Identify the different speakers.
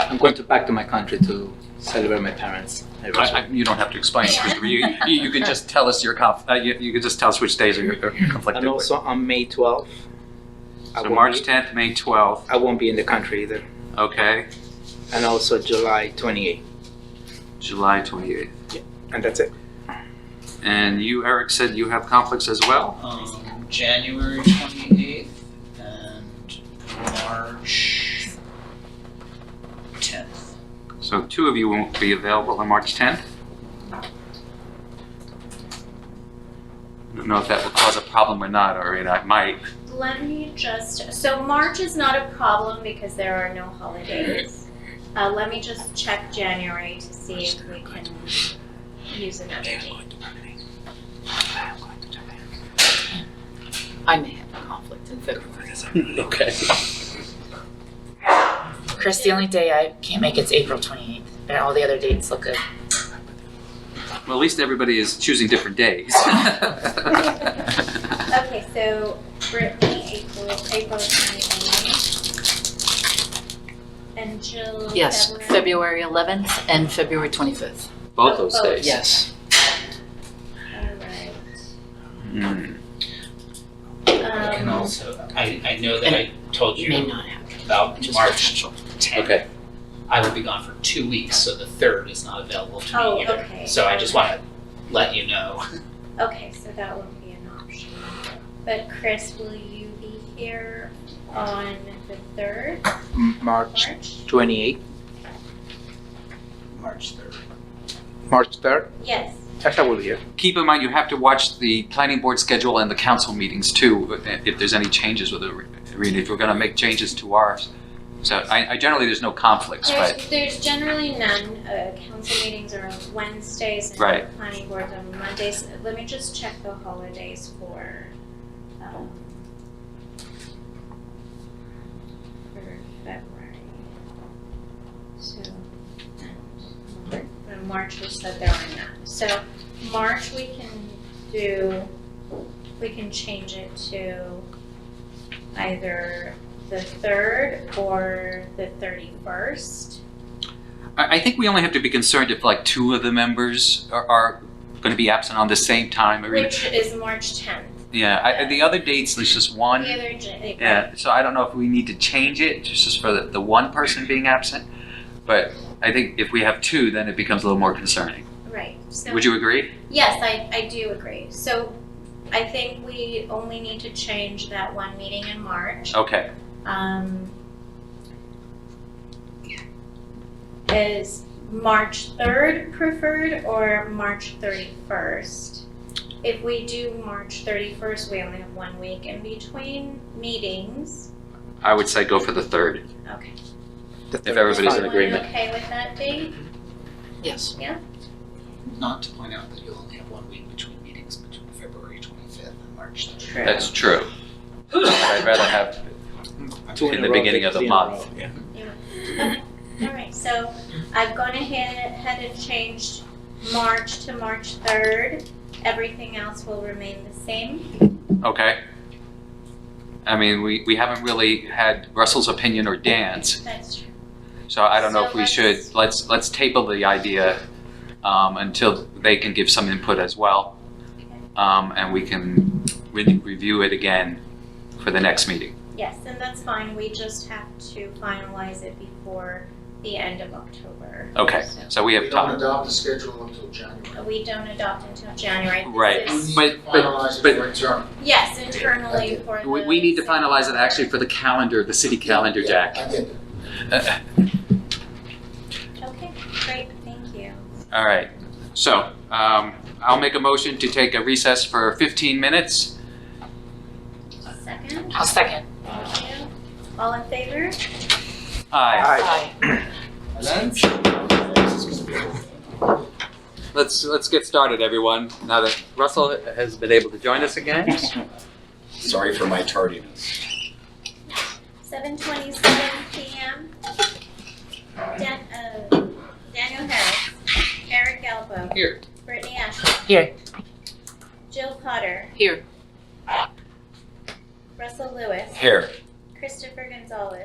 Speaker 1: I'm going to back to my country to celebrate my parents.
Speaker 2: I, I, you don't have to explain it, Christopher. You, you, you can just tell us your conf, uh, you, you can just tell us which days are you're you're conflicted
Speaker 1: and
Speaker 2: with.
Speaker 1: also on May 12th. I
Speaker 2: So
Speaker 1: won't
Speaker 2: March
Speaker 1: be,
Speaker 2: 10th, May 12th,
Speaker 1: I won't be in the country either.
Speaker 2: okay,
Speaker 1: And also July 28th.
Speaker 2: July 28th.
Speaker 1: And that's it.
Speaker 2: And you, Eric, said you have conflicts as well?
Speaker 3: Um, January twenty-eighth and March tenth.
Speaker 2: So two of you won't be available on March 10th? I don't know if that will cause a problem or not, or it might.
Speaker 4: Let me just, so March is not a problem because there are no holidays. Uh, let me just check January to see if we can use another date.
Speaker 5: I may have a conflict in February.
Speaker 1: Okay.
Speaker 5: Chris, the only day I can't make it's April twenty-eighth, and all the other dates look good.
Speaker 2: Well, at least everybody is choosing different days.
Speaker 4: Okay, so Brittany, April, April twenty-eighth. And Jill, February.
Speaker 6: Yes, February 11th and February 25th.
Speaker 2: Both those days.
Speaker 6: Yes.
Speaker 2: Hmm.
Speaker 4: Alright,
Speaker 3: And
Speaker 4: um,
Speaker 3: also, I, I know that I told
Speaker 6: May
Speaker 3: you
Speaker 6: not happen.
Speaker 3: about
Speaker 6: Just
Speaker 3: March tenth.
Speaker 2: Okay.
Speaker 3: I will be gone for two weeks, so the third is not available to
Speaker 4: Oh,
Speaker 3: me either.
Speaker 4: okay.
Speaker 3: So I just want to let you know.
Speaker 4: okay, so that won't be an option. But Chris, will you be here on the third of
Speaker 1: March
Speaker 4: March?
Speaker 1: 28th,
Speaker 3: March third.
Speaker 1: March 3rd.
Speaker 4: Yes.
Speaker 1: Yes, I will be here.
Speaker 2: Keep in mind, you have to watch the planning board schedule and the council meetings too, if there's any changes with the, I mean, if we're going to make changes to ours. So I, I generally, there's no conflicts, but
Speaker 4: There's, there's generally none, uh, council meetings are on Wednesdays and
Speaker 2: Right.
Speaker 4: planning boards on Mondays. Let me just check the holidays for, um, for February. So, and Mar- uh, March was said there are none. So March, we can do, we can change it to either the third or the thirty-first.
Speaker 2: I, I think we only have to be concerned if like two of the members are, are going to be absent on the same time. I mean,
Speaker 4: Which is March tenth.
Speaker 2: Yeah, I, I- the other dates, there's just
Speaker 4: The
Speaker 2: one.
Speaker 4: other j-
Speaker 2: Yeah, so I don't know if we need to change it, just as for the, the one person being absent. But I think if we have two, then it becomes a little more concerning.
Speaker 4: Right, so,
Speaker 2: Would you agree?
Speaker 4: yes, I, I do agree. So I think we only need to change that one meeting in March.
Speaker 2: Okay.
Speaker 4: Um, is March third preferred or March thirty-first? If we do March thirty-first, we only have one week in between meetings.
Speaker 2: I would say go for the third.
Speaker 4: Okay.
Speaker 1: The
Speaker 2: If everybody's
Speaker 4: Is
Speaker 2: in
Speaker 4: everyone
Speaker 2: agreement.
Speaker 4: Okay with that date?
Speaker 6: Yes.
Speaker 3: Not to point out that you'll only have one week between meetings between February twenty-fifth and March third.
Speaker 4: True.
Speaker 2: That's true. But I'd rather have,
Speaker 1: Two
Speaker 2: in
Speaker 1: a
Speaker 2: the
Speaker 1: row,
Speaker 2: beginning of the
Speaker 1: fifteen in a
Speaker 2: month.
Speaker 1: row, yeah.
Speaker 4: Alright, so I've gone ahead, ahead and changed March to March third. Everything else will remain the same.
Speaker 2: okay. I mean, we, we haven't really had Russell's opinion or Dan's,
Speaker 4: That's true.
Speaker 2: so I don't know if
Speaker 4: So
Speaker 2: we should, let's, let's table the idea um, until they can give some input as well. Um, And we can re- review it again for the next meeting.
Speaker 4: Yes, and that's fine. We just have to finalize it before the end of October.
Speaker 2: Okay,
Speaker 4: So,
Speaker 2: so we have
Speaker 7: We don't
Speaker 2: time.
Speaker 7: adopt the schedule until January.
Speaker 4: We don't adopt until January. This
Speaker 2: Right.
Speaker 7: We
Speaker 4: is-
Speaker 7: need
Speaker 2: But-
Speaker 7: to
Speaker 2: but-
Speaker 7: finalize it
Speaker 2: but-
Speaker 7: for internal.
Speaker 4: Yes, internally for the.
Speaker 2: We, we need to finalize it actually for the calendar, the city calendar,
Speaker 7: Yeah,
Speaker 2: Jack.
Speaker 7: I get that.
Speaker 4: Okay, great, thank you.
Speaker 2: All right, so, um, I'll make a motion to take a recess for fifteen minutes.
Speaker 4: Second,
Speaker 5: I'll second.
Speaker 4: thank you. All in favor?
Speaker 2: Aye,
Speaker 5: Aye.
Speaker 2: let's, let's get started, everyone, now that Russell has been able to join us again.
Speaker 8: Sorry for my tardiness.
Speaker 4: Seven twenty-seven PM. Dan, uh, Daniel Harris, Eric Galbo.
Speaker 2: Here.
Speaker 4: Brittany Ashley.
Speaker 5: Here.
Speaker 4: Jill Potter,
Speaker 6: Here.
Speaker 4: Russell Lewis,
Speaker 2: Here.
Speaker 4: Christopher Gonzalez.